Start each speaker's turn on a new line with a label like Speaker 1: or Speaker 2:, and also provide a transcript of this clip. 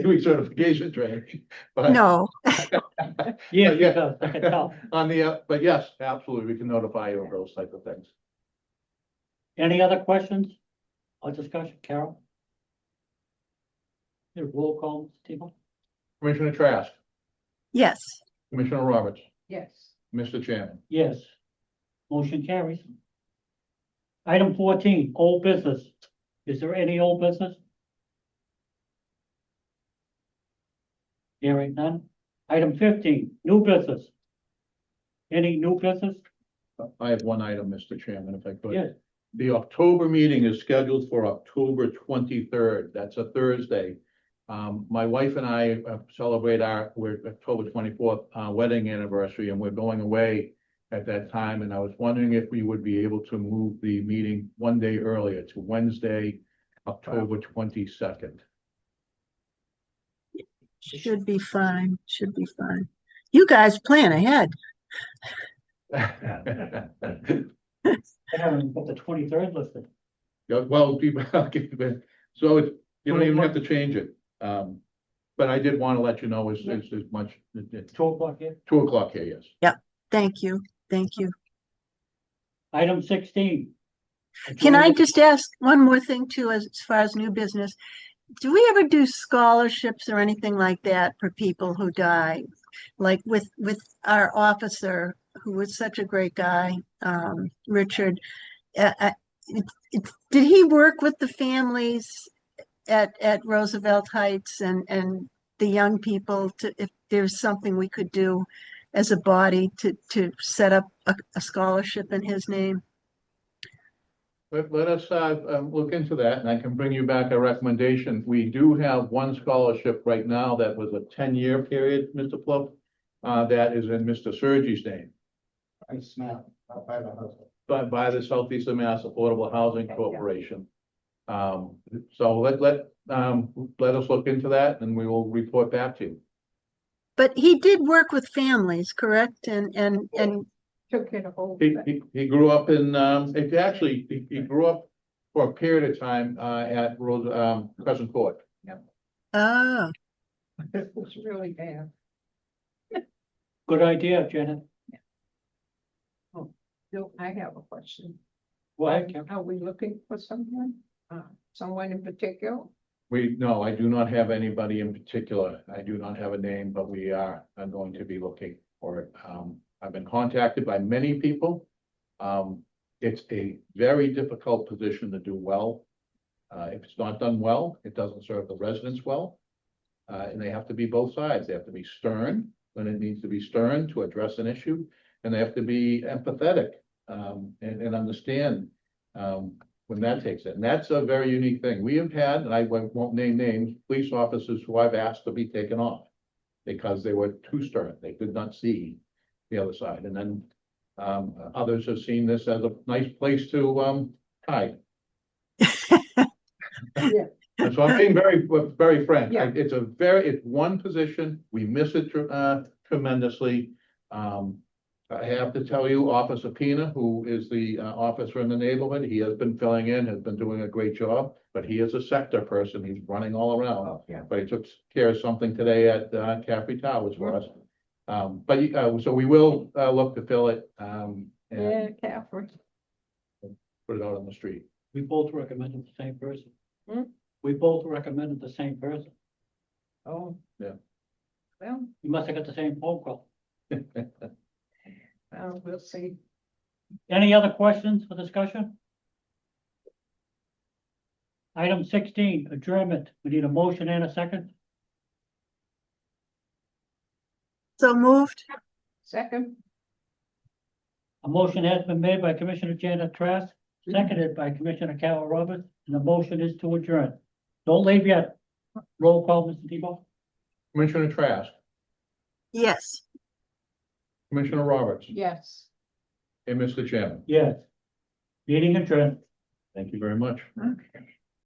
Speaker 1: doing certification training. but-
Speaker 2: No,
Speaker 3: Yeah,
Speaker 1: But
Speaker 3: yeah,
Speaker 1: yeah.
Speaker 3: does. I can tell.
Speaker 1: On the, uh, but yes, absolutely, we can notify you of those type of things.
Speaker 3: Any other questions or discussion, Carol? Your roll call, Steve?
Speaker 1: Commissioner Trask,
Speaker 2: yes,
Speaker 1: Commissioner Roberts,
Speaker 4: yes,
Speaker 1: Mr. Chairman.
Speaker 3: Yes. Motion carries. Item fourteen, old business. Is there any old business? Hearing none. Item fifteen, new business. Any new business?
Speaker 1: I have one item, Mr. Chairman, if I could.
Speaker 3: Yes.
Speaker 1: The October meeting is scheduled for October twenty-third. That's a Thursday. Um, my wife and I uh, celebrate our, we're October twenty-fourth, uh, wedding anniversary, and we're going away at that time, and I was wondering if we would be able to move the meeting one day earlier to Wednesday, October twenty-second.
Speaker 2: should be fine, should be fine. You guys plan ahead.
Speaker 3: I haven't got the twenty-third listed.
Speaker 1: Yeah, well, people, okay, but- so it, you don't even have to change it. Um, but I did want to let you know as, as, as much,
Speaker 3: Two o'clock here.
Speaker 1: two o'clock here, yes.
Speaker 2: Thank you, thank you.
Speaker 3: Item sixteen.
Speaker 2: Can I just ask one more thing too, as as far as new business? Do we ever do scholarships or anything like that for people who die? Like with, with our officer, who was such a great guy, um, Richard. uh, uh, it- it- Did he work with the families at, at Roosevelt Heights and, and the young people to, if there's something we could do as a body to, to set up a, a scholarship in his name?
Speaker 1: Let, let us, uh, um, look into that and I can bring you back a recommendation. We do have one scholarship right now that was a ten-year period, Mr. Plump. Uh, that is in Mr. Sergi's name,
Speaker 5: I smell, I'll buy the house.
Speaker 1: but by the Southeast Mass Affordable Housing Corporation. Um, so let, let, um, let us look into that and we will report back to you.
Speaker 2: But he did work with families, correct? And, and, and,
Speaker 4: took it a whole.
Speaker 1: He, he, he grew up in, um, it actually, he, he grew up for a period of time, uh, at Rose, um, Crescent Court.
Speaker 2: oh,
Speaker 4: It was really bad.
Speaker 3: Good idea, Janet.
Speaker 4: No, I have a question.
Speaker 3: Go ahead, Carol.
Speaker 4: Are we looking for someone, uh, someone in particular?
Speaker 1: We, no, I do not have anybody in particular. I do not have a name, but we are, I'm going to be looking for it. Um, I've been contacted by many people. Um, it's a very difficult position to do well. Uh, if it's not done well, it doesn't serve the residents well. Uh, and they have to be both sides. They have to be stern when it needs to be stern to address an issue. And they have to be empathetic, um, and, and understand, um, when that takes it. And that's a very unique thing. We have had, and I won't won't name names, police officers who I've asked to be taken off because they were too stern. They did not see the other side. And then um, others have seen this as a nice place to um, hide.
Speaker 4: Yeah.
Speaker 1: And so I'm being very, very frank.
Speaker 4: Yeah.
Speaker 1: It's a very, it's one position. We miss it tre- uh, tremendously. Um, I have to tell you, Officer Pena, who is the uh, officer in the neighborhood, he has been filling in, has been doing a great job, but he is a sector person. He's running all around.
Speaker 5: Oh, yeah.
Speaker 1: But he took care of something today at uh, Caffrey Towers for us. Um, but uh, so we will uh, look to fill it um,
Speaker 4: Yeah,
Speaker 1: and
Speaker 4: Catherine.
Speaker 1: put it out on the street.
Speaker 3: We both recommended the same person.
Speaker 4: Hmm?
Speaker 3: We both recommended the same person.
Speaker 4: Oh.
Speaker 1: Yeah.
Speaker 4: Well,
Speaker 3: You must have got the same phone call.
Speaker 4: uh, we'll see.
Speaker 3: Any other questions for discussion? Item sixteen, adjournment. We need a motion and a second.
Speaker 2: so moved?
Speaker 4: Second,
Speaker 3: A motion has been made by Commissioner Janet Trask, seconded by Commissioner Carol Roberts, and the motion is to adjourn. Don't leave yet. Roll call, Mr. Tebow.
Speaker 1: Commissioner Trask,
Speaker 2: Yes.
Speaker 1: Commissioner Roberts,
Speaker 4: yes.
Speaker 1: and Mr. Chairman.
Speaker 3: Yes. Meeting adjourned.
Speaker 1: Thank you very much.
Speaker 4: Okay.